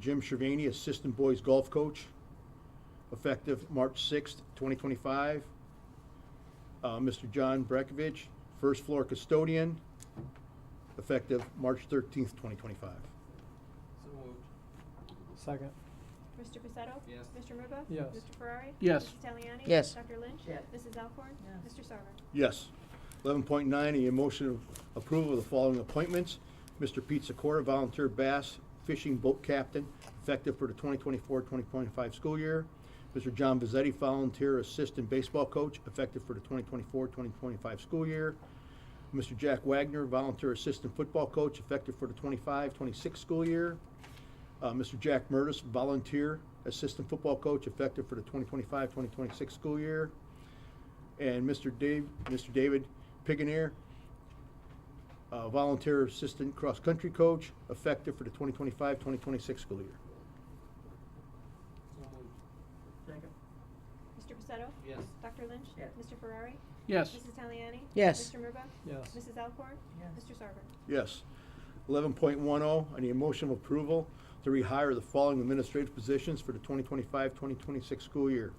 Jim Shervany, Assistant Boys Golf Coach, effective March 6th, 2025. Uh, Mr. John Brekovich, First Floor Custodian, effective March 13th, 2025. So moved. Second. Mr. Pacetto? Yes. Mr. Murbaugh? Yes. Mr. Ferrari? Yes. Mrs. Taliani? Yes. Dr. Lynch? Yes. Mrs. Alcorn? Yes. Mr. Sarver? Yes. 11.9, a motion of approval of the following appointments. Mr. Pete Secora, volunteer bass fishing boat captain, effective for the 2024-2025 school year. Mr. John Vizetti, volunteer assistant baseball coach, effective for the 2024-2025 school year. Mr. Jack Wagner, volunteer assistant football coach, effective for the 25-26 school year. Uh, Mr. Jack Murdis, volunteer assistant football coach, effective for the 2025-2026 school year and Mr. Dave, Mr. David Piganier, uh, volunteer assistant cross-country coach, effective for the 2025-2026 school year. So moved. Second. Mr. Pacetto? Yes. Dr. Lynch? Yes. Mr. Ferrari? Yes. Mrs. Taliani? Yes. Mr. Murbaugh? Yes. Mrs. Alcorn? Yes. Mr. Sarver? Yes. Eleven point one oh, I need a motion of approval to rehire the following administrative positions for the 2025-2026 school year.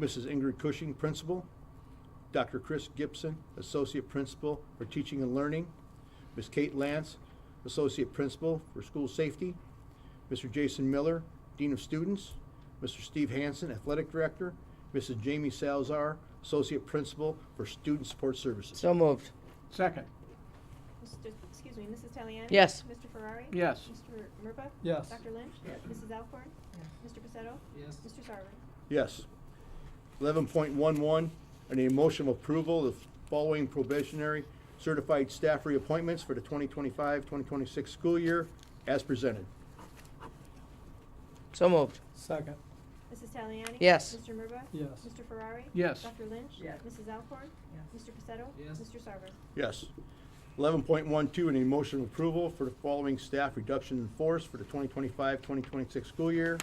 Mrs. Ingrid Cushing, Principal. Dr. Chris Gibson, Associate Principal for Teaching and Learning. Ms. Kate Lance, Associate Principal for School Safety. Mr. Jason Miller, Dean of Students. Mr. Steve Hansen, Athletic Director. Mrs. Jamie Salzar, Associate Principal for Student Support Services. So moved. Second. Mr. Excuse me, Mrs. Taliani? Yes. Mr. Ferrari? Yes. Mr. Murbaugh? Yes. Dr. Lynch? Yes. Mrs. Alcorn? Mr. Pacetto? Yes. Mr. Sarver? Yes. Eleven point one one, I need a motion of approval of following probationary certified staff reappointments for the 2025-2026 school year as presented. So moved. Second. Mrs. Taliani? Yes. Mr. Murbaugh? Yes. Mr. Ferrari? Yes. Dr. Lynch? Yes. Mrs. Alcorn? Yes. Mr. Pacetto? Yes. Mr. Sarver? Yes. Eleven point one two, I need a motion of approval for the following staff reduction in force for the 2025-2026 school year.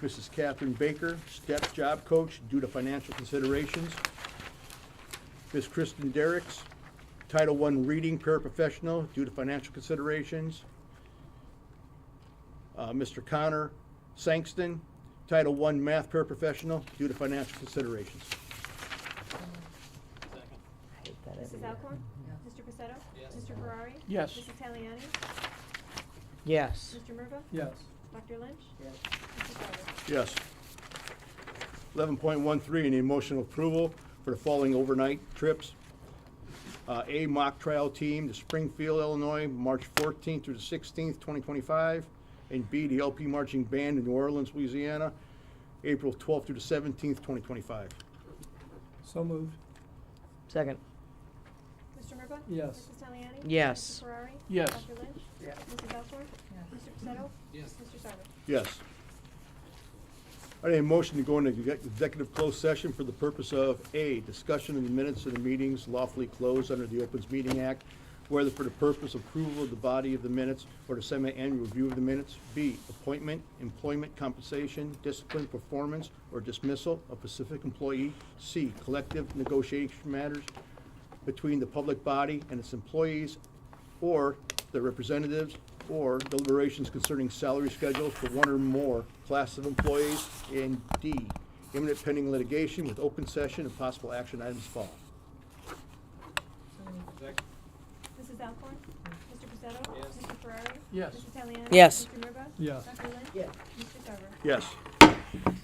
Mrs. Catherine Baker, step job coach due to financial considerations. Ms. Kristen Derricks, Title I reading paraprofessional due to financial considerations. Uh, Mr. Connor Sankston, Title I math paraprofessional due to financial considerations. Second. I hate that every Mrs. year. Alcorn? Yes. Mr. Pacetto? Yes. Mr. Ferrari? Yes. Mrs. Taliani? Yes. Mr. Murbaugh? Yes. Dr. Lynch? Yes. Mr. Sarver? Yes. Eleven point one three, any emotional approval for the following overnight trips. Uh, A mock trial team to Springfield, Illinois, March fourteenth through the sixteenth, twenty twenty-five. And B, the LP marching band in New Orleans, Louisiana, April twelfth through the seventeenth, twenty twenty-five. So moved. Second. Mr. Murbaugh? Yes. Mrs. Taliani? Yes. Mr. Ferrari? Yes. Dr. Lynch? Yes. Mrs. Alcorn? Yes. Mr. Pacetto? Yes. Mr. Sarver? Yes. I need a motion to go into exec- executive closed session for the purpose of, A, discussion of the minutes of the meetings lawfully closed under the Opens Meeting Act, whether for the purpose of approval of the body of the minutes or the semi-annual review of the minutes. B, appointment, employment compensation, discipline, performance, or dismissal of specific employee. C, collective negotiation matters between the public body and its employees or their representatives, or deliberations concerning salary schedules for one or more class of employees, and D, imminent pending litigation with open session and possible action items fall. Second. Mrs. Alcorn? Mr. Pacetto? Yes. Mr. Ferrari? Yes. Mrs. Taliani? Yes. Mr. Murbaugh? Yes. Dr. Lynch? Yes. Mr. Sarver? Yes.